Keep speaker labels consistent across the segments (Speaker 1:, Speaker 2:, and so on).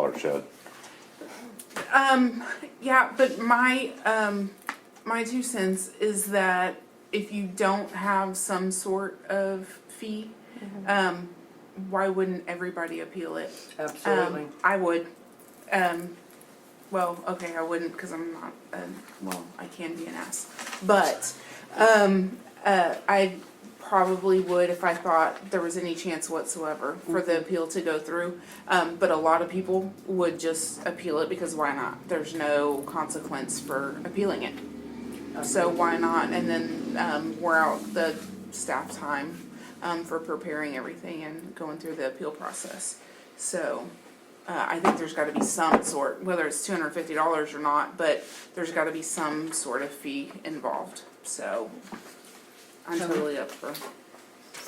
Speaker 1: storage shed.
Speaker 2: Um, yeah, but my, um, my two cents is that if you don't have some sort of fee, um, why wouldn't everybody appeal it? Um,
Speaker 3: Absolutely.
Speaker 2: I would, um, well, okay, I wouldn't, cause I'm not, um, well, I can be an ass, but, um, uh, I probably would if I thought there was any chance whatsoever for the appeal to go through. Um, but a lot of people would just appeal it because why not? There's no consequence for appealing it.
Speaker 3: Um,
Speaker 2: So why not? And then, um, we're out the staff time, um, for preparing everything and going through the appeal process. So, uh, I think there's gotta be some sort, whether it's two hundred and fifty dollars or not, but there's gotta be some sort of fee involved, so. I'm totally up for,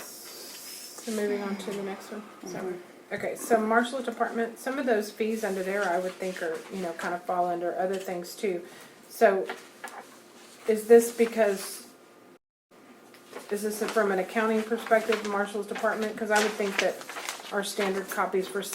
Speaker 4: So moving on to the next one, so, okay, so marshal's department, some of those fees under there, I would think are, you know, kind of fall under other things too. So, is this because, is this from an accounting perspective, marshal's department? Cause I would think that our standard copies for, s-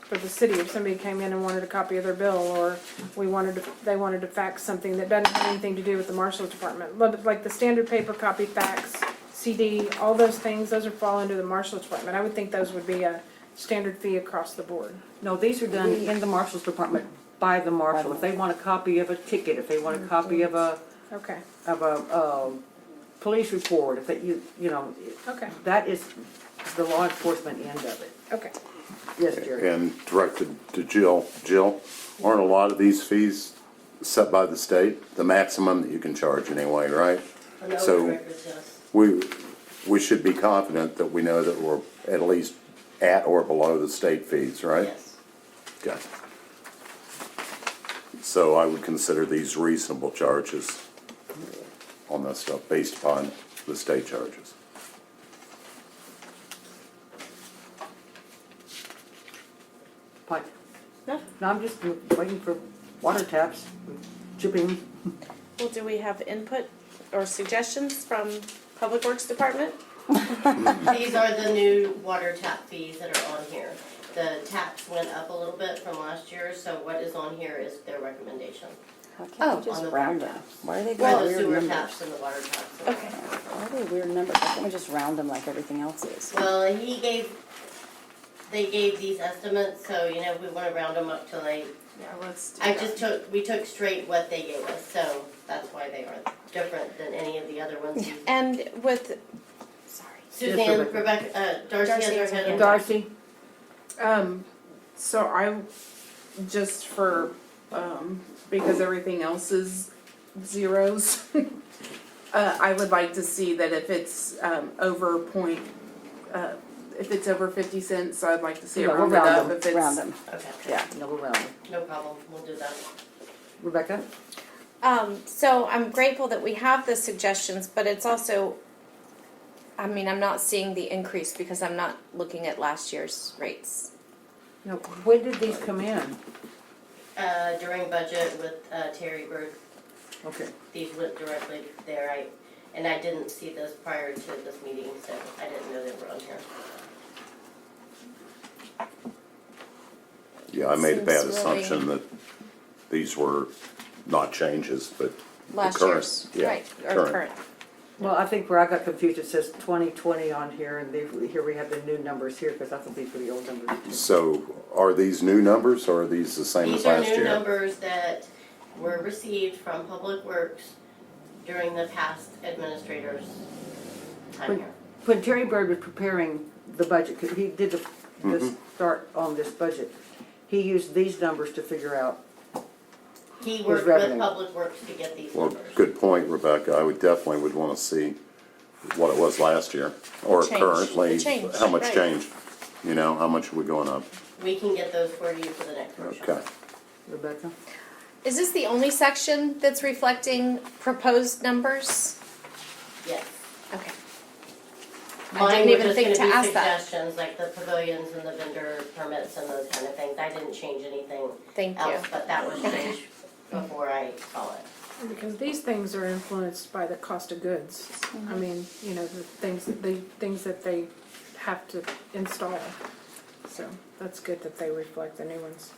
Speaker 4: for the city, if somebody came in and wanted a copy of their bill, or we wanted, to- they wanted to fax something that doesn't have anything to do with the marshal's department, but like the standard paper copy fax, CD, all those things, those are fall under the marshal's department. I would think those would be a standard fee across the board.
Speaker 3: No, these are done in the marshal's department by the marshal. If they want a copy of a ticket, if they want a copy of a,
Speaker 4: Okay,
Speaker 3: of a, um, police report, if they, you, you know,
Speaker 4: okay,
Speaker 3: that is the law enforcement end of it.
Speaker 4: okay.
Speaker 3: Yes, Jerry.
Speaker 1: And directed to Jill. Jill, aren't a lot of these fees set by the state? The maximum that you can charge anyway, right?
Speaker 5: Oh,
Speaker 1: So we, we should be confident that we know that we're at least at or below the state fees, right? Okay. So I would consider these reasonable charges on this stuff based upon the state charges.
Speaker 3: Pike.
Speaker 6: No.
Speaker 3: No, I'm just waiting for water taps, chipping.
Speaker 6: Well, do we have input or suggestions from Public Works Department?
Speaker 5: These are the new water tap fees that are on here. The taps went up a little bit from last year, so what is on here is their recommendation.
Speaker 7: Why can't
Speaker 6: Oh,
Speaker 7: we just
Speaker 5: on the
Speaker 7: round
Speaker 5: water
Speaker 7: them?
Speaker 5: taps.
Speaker 7: Why are they
Speaker 5: Well,
Speaker 7: going
Speaker 5: the
Speaker 7: weird
Speaker 5: sewer
Speaker 7: numbers?
Speaker 5: taps and the water taps.
Speaker 6: Okay.
Speaker 7: Why are they weird numbers? Why can't we just round them like everything else is?
Speaker 5: Well, he gave, they gave these estimates, so you know, we wanna round them up till they,
Speaker 2: yeah, let's do
Speaker 5: I
Speaker 2: that.
Speaker 5: just took, we took straight what they gave us, so that's why they are different than any of the other ones.
Speaker 6: And with, sorry,
Speaker 5: Suzanne,
Speaker 3: Rebecca.
Speaker 5: Rebecca, uh, Darcy has
Speaker 6: Darcy
Speaker 5: her
Speaker 6: has her
Speaker 5: head
Speaker 6: hand
Speaker 5: on.
Speaker 3: Darcy?
Speaker 2: um, so I, just for, um, because everything else is zeros. Uh, I would like to see that if it's, um, over point, uh, if it's over fifty cents, I'd like to see it
Speaker 3: Yeah, we'll
Speaker 2: rounded
Speaker 3: round
Speaker 2: up,
Speaker 3: them,
Speaker 2: if it's.
Speaker 7: Round them.
Speaker 5: Okay,
Speaker 7: Yeah.
Speaker 3: No, we're rounding.
Speaker 5: no problem, we'll do that.
Speaker 3: Rebecca?
Speaker 6: um, so I'm grateful that we have the suggestions, but it's also, I mean, I'm not seeing the increase because I'm not looking at last year's rates.
Speaker 3: No, when did these come in?
Speaker 5: Uh, during budget with, uh, Terry Bird,
Speaker 3: Okay.
Speaker 5: these went directly there, I, and I didn't see those prior to this meeting, so I didn't know they were on here.
Speaker 1: Yeah, I made a bad
Speaker 6: Seems really-
Speaker 1: assumption that these were not changes, but the
Speaker 6: Last
Speaker 1: current-
Speaker 6: year's,
Speaker 1: yeah,
Speaker 6: right, or current.
Speaker 3: Well, I think where I got confused, it says twenty twenty on here, and they, here we have the new numbers here, because I thought these were the old numbers.
Speaker 1: So are these new numbers or are these the same as
Speaker 5: These are
Speaker 1: last
Speaker 5: new
Speaker 1: year?
Speaker 5: numbers that were received from Public Works during the past administrator's time here.
Speaker 3: When Terry Bird was preparing the budget, 'cause he did the, the start on this budget, he used these numbers to figure out,
Speaker 5: He worked
Speaker 3: revenue.
Speaker 5: with Public Works to get these
Speaker 1: Well,
Speaker 5: numbers.
Speaker 1: good point, Rebecca. I would definitely would want to see what it was last year or
Speaker 6: Change, the
Speaker 1: currently,
Speaker 6: change,
Speaker 1: how much
Speaker 6: right.
Speaker 1: change? You know, how much are we going up?
Speaker 5: We can get those for you for the next workshop.
Speaker 1: Okay.
Speaker 3: Rebecca?
Speaker 6: Is this the only section that's reflecting proposed numbers?
Speaker 5: Yes.
Speaker 6: Okay. I
Speaker 5: Mine
Speaker 6: didn't
Speaker 5: were
Speaker 6: even
Speaker 5: just
Speaker 6: think
Speaker 5: gonna
Speaker 6: to
Speaker 5: be
Speaker 6: ask that.
Speaker 5: suggestions, like the pavilions and the vendor permits and those kind of things. I didn't change anything
Speaker 6: Thank you.
Speaker 5: else, but that was changed before I saw it.
Speaker 4: Because these things are influenced by the cost of goods. I mean, you know, the things, the things that they have to install. so that's good that they reflect the new ones.